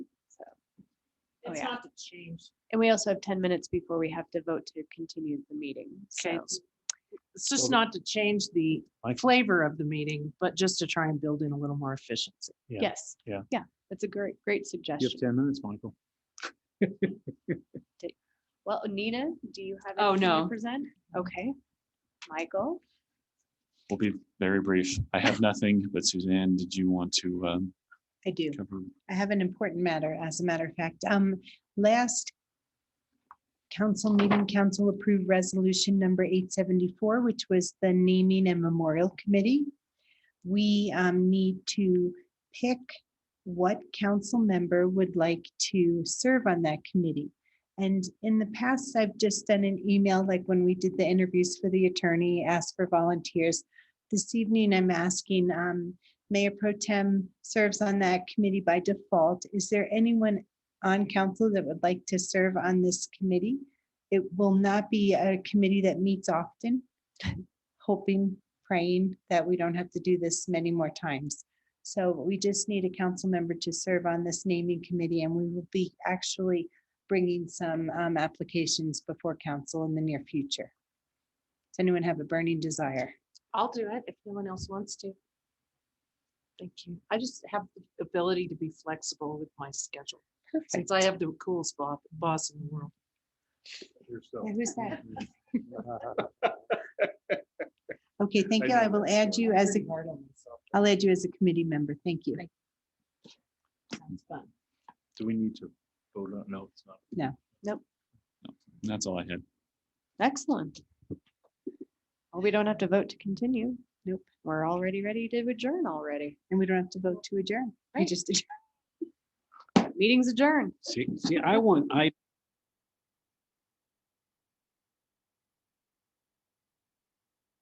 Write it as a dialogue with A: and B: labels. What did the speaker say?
A: It's
B: oh, yeah.
A: not to change.
B: And we also have ten minutes before we have to vote to continue the meeting. So,
A: Okay, it's- It's just
C: Well,
A: not to change the
C: I-
A: flavor of the meeting, but just to try and build in a little more efficiency.
C: Yeah.
B: yes.
C: Yeah.
B: Yeah, that's a great, great
C: You have
B: suggestion.
C: ten minutes, Michael.
B: Well, Nina, do you have?
A: Oh,
B: anything to
A: no.
B: Present? Okay. Michael?
D: We'll be very brief. I have nothing, but Suzanne, did you want to um,
E: I do.
D: cover?
E: I have an important matter, as a matter of fact. Um, last council meeting, council approved resolution number eight seventy-four, which was the naming and memorial committee. We, um, need to pick what council member would like to serve on that committee. And in the past, I've just done an email, like when we did the interviews for the attorney, asked for volunteers. This evening, I'm asking, um, Mayor Pro Tem serves on that committee by default. Is there anyone on council that would like to serve on this committee? It will not be a committee that meets often. Hoping, praying that we don't have to do this many more times. So we just need a council member to serve on this naming committee and we will be actually bringing some um, applications before council in the near future. Does anyone have a burning desire?
A: I'll do it if no one else wants to. Thank you. I just have the ability to be flexible with my schedule, since I have the coolest boss, boss in the world.
E: Yeah, Who's that? Okay, thank you. I will add you as a, I'll add you as a committee member. Thank you.
A: Sounds fun.
C: Do we need to vote on? No, it's not.
D: That's all I had.
B: Excellent. Well, we don't have to vote to continue. Nope. We're already ready to adjourn already.
E: And we don't have to vote to adjourn. We
B: Right.
E: just adjourn.
B: Meeting's adjourned.
C: See, see, I want, I